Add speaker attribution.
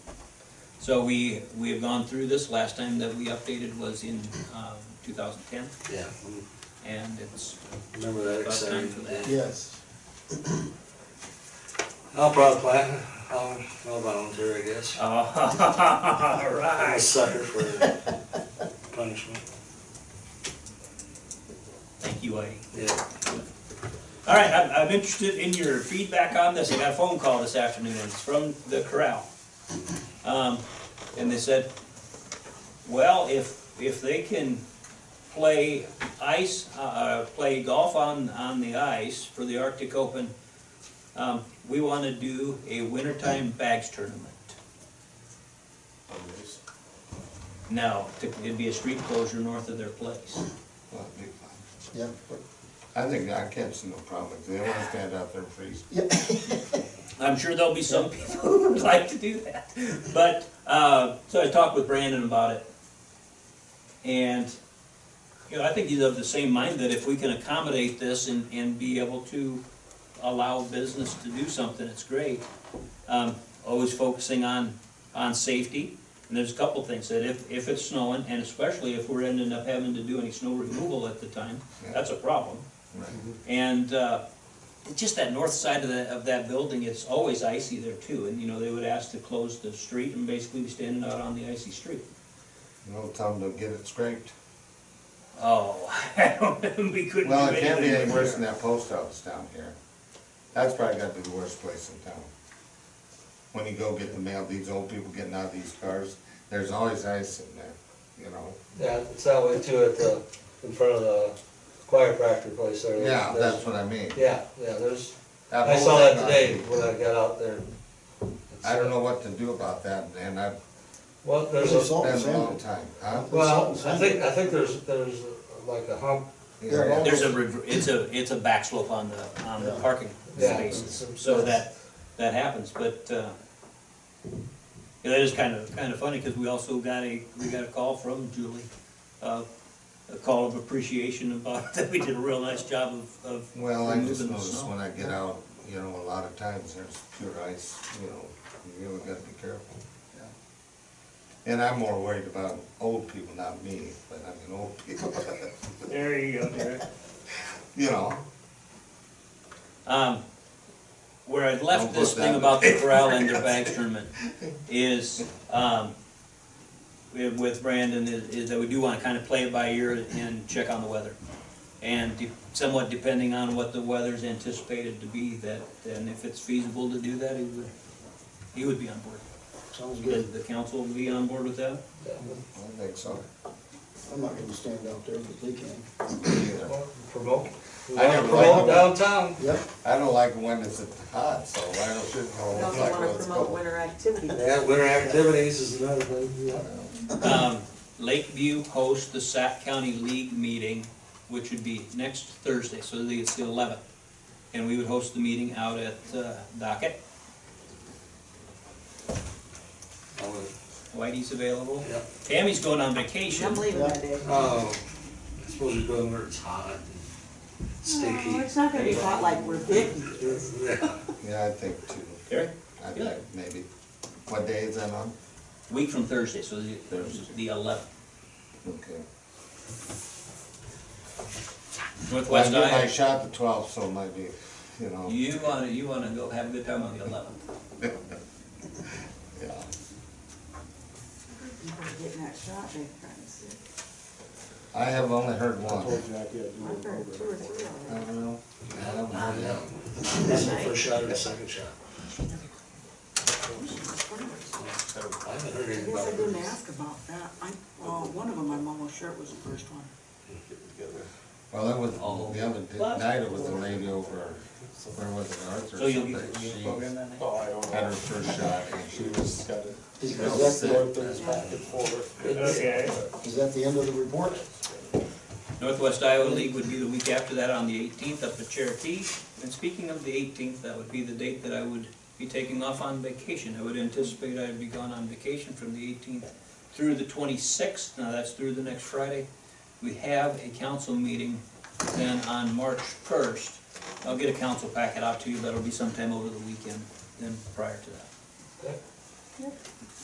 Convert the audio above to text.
Speaker 1: So we, we have gone through this, last time that we updated was in, um, two thousand ten,
Speaker 2: Yeah,
Speaker 1: and it's,
Speaker 2: remember that
Speaker 1: About time
Speaker 2: exciting
Speaker 1: for that.
Speaker 2: day.
Speaker 3: Yes.
Speaker 2: I'll probably plan, I'll, I'll volunteer, I guess.
Speaker 1: all
Speaker 2: I'm a
Speaker 1: right.
Speaker 2: sucker for punishment,
Speaker 1: Thank you, Whitey.
Speaker 2: yeah.
Speaker 1: All right, I'm, I'm interested in your feedback on this. I got a phone call this afternoon, and it's from the corral. Um, and they said, well, if, if they can play ice, uh, uh, play golf on, on the ice for the Arctic Open, um, we wanna do a wintertime bags tournament. No, it'd be a street closure north of their place.
Speaker 4: Well, that'd be fine.
Speaker 3: Yeah.
Speaker 4: I think that cat's no problem, 'cause they don't wanna stand out there and freeze.
Speaker 3: Yeah.
Speaker 1: I'm sure there'll be some people who would like to do that. But, uh, so I talked with Brandon about it. And, you know, I think he's of the same mind that if we can accommodate this and, and be able to allow business to do something, it's great. Um, always focusing on, on safety. And there's a couple things that if, if it's snowing, and especially if we're ending up having to do any snow removal at the time, that's a problem.
Speaker 4: Right.
Speaker 1: And uh, it's just that north side of the, of that building, it's always icy there too. And, you know, they would ask to close the street and basically be standing out on the icy street.
Speaker 4: You know, tell them to get it scraped.
Speaker 1: Oh, I don't, we couldn't do
Speaker 4: Well, it
Speaker 1: anything.
Speaker 4: can't be any worse than that post office down here. That's probably gotta be the worst place in town. When you go get the mail, these old people getting out of these cars, there's always ice in there, you know?
Speaker 2: Yeah, it's that way too at the, in front of the chiropractor place there.
Speaker 4: Yeah,
Speaker 2: There's-
Speaker 4: that's what I mean.
Speaker 2: Yeah, yeah, there's,
Speaker 4: That
Speaker 2: I
Speaker 4: whole
Speaker 2: saw
Speaker 4: thing
Speaker 2: that
Speaker 4: on-
Speaker 2: today when I got out there.
Speaker 4: I don't know what to do about that, and I've
Speaker 2: Well, there's
Speaker 3: There's
Speaker 2: a,
Speaker 3: all-
Speaker 4: been a long time, huh?
Speaker 2: well, I think, I think there's, there's like a hump,
Speaker 4: Yeah,
Speaker 1: There's a, rever- it's a, it's a back slope on the, on the
Speaker 3: Yeah.
Speaker 1: parking
Speaker 2: Yeah.
Speaker 1: spaces, so that, that happens, but, uh, yeah, that is kind of, kind of funny, because we also got a, we got a call from Julie, uh, a call of appreciation about, that we did a real nice job of, of
Speaker 4: Well, I just
Speaker 1: removing the
Speaker 4: noticed when
Speaker 1: snow.
Speaker 4: I get out, you know, a lot of times there's pure ice, you know, you really gotta be careful. And I'm more worried about old people, not me, but I mean, old people,
Speaker 1: There you go, Derek.
Speaker 4: you know.
Speaker 1: Um, where I'd
Speaker 4: Don't
Speaker 1: left
Speaker 4: put
Speaker 1: this
Speaker 4: that
Speaker 1: thing
Speaker 4: in
Speaker 1: about the
Speaker 4: the
Speaker 1: corral and their bag tournament is, um, with- with Brandon, is, is that we do wanna kinda play it by ear and check on the weather. And de- somewhat depending on what the weather's anticipated to be, that, and if it's feasible to do that, he would, he would be on board.
Speaker 3: Sounds
Speaker 1: Would the council be on board with that?
Speaker 4: I think so.
Speaker 3: I'm not gonna stand out there, but they can.
Speaker 4: Either.
Speaker 2: Well, promote. We
Speaker 4: I
Speaker 2: wanna
Speaker 4: never liked
Speaker 2: Promote
Speaker 4: it.
Speaker 2: downtown.
Speaker 3: Yep.
Speaker 4: I don't like when it's hot, so I don't shouldn't
Speaker 5: We
Speaker 4: know.
Speaker 5: also wanna promote winter activities.
Speaker 2: Yeah, winter activities is another thing, yeah.
Speaker 1: Um, Lakeview hosts the Sac County League meeting, which would be next Thursday, so the- it's the eleventh. And we would host the meeting out at uh, Docket.
Speaker 2: I would-
Speaker 1: Whitey's available.
Speaker 2: Yeah.
Speaker 1: Tammy's going on
Speaker 5: I'm
Speaker 1: vacation.
Speaker 5: leaving that day.
Speaker 2: Oh, I suppose you're going where it's hot and
Speaker 5: Oh,
Speaker 2: sticky.
Speaker 5: It's not gonna be hot like we're Vicky.
Speaker 2: Yeah.
Speaker 4: Yeah, I think too.
Speaker 1: Gary?
Speaker 4: I
Speaker 1: Yeah.
Speaker 4: think maybe. What day is that on?
Speaker 1: Week from Thursday, so the-
Speaker 4: Thursday.
Speaker 1: the eleventh.
Speaker 4: Okay. Well, I
Speaker 1: Northwest
Speaker 4: get my
Speaker 1: Iowa.
Speaker 4: shot the twelfth, so it might be, you know,
Speaker 1: You wanna, you wanna go have a good time on the eleventh.
Speaker 4: yeah.
Speaker 5: You're getting that shot, big friends.
Speaker 4: I have only heard one.
Speaker 3: Told you I could do
Speaker 5: I've heard two or
Speaker 3: it.
Speaker 5: three
Speaker 4: I
Speaker 5: already.
Speaker 4: don't know. I haven't heard yet.
Speaker 2: That's my first shot or the second shot. I haven't heard
Speaker 5: I
Speaker 2: anything
Speaker 5: guess
Speaker 2: about
Speaker 5: I didn't
Speaker 2: it.
Speaker 5: ask about that. I, well, one of them, I'm almost sure it was the first one.
Speaker 4: Well, that was,
Speaker 1: Oh.
Speaker 4: the other di- night it was the lady over, where was it, Arthur?
Speaker 1: So you'll
Speaker 4: something.
Speaker 1: get, you'll program that night?
Speaker 6: Oh, I don't
Speaker 4: She had her
Speaker 6: know.
Speaker 4: first shot and she
Speaker 6: She
Speaker 4: was,
Speaker 6: was got it.
Speaker 3: Is
Speaker 4: No,
Speaker 3: is that
Speaker 4: sick.
Speaker 3: the,
Speaker 6: It's back and forth.
Speaker 1: Okay.
Speaker 3: is that the end of the report?
Speaker 1: Northwest Iowa League would be the week after that on the eighteenth up at Cherokee. And speaking of the eighteenth, that would be the date that I would be taking off on vacation. I would anticipate I'd be gone on vacation from the eighteenth through the twenty-sixth. Now, that's through the next Friday. We have a council meeting then on March first. I'll get a council packet out to you, that'll be sometime over the weekend, then prior to that.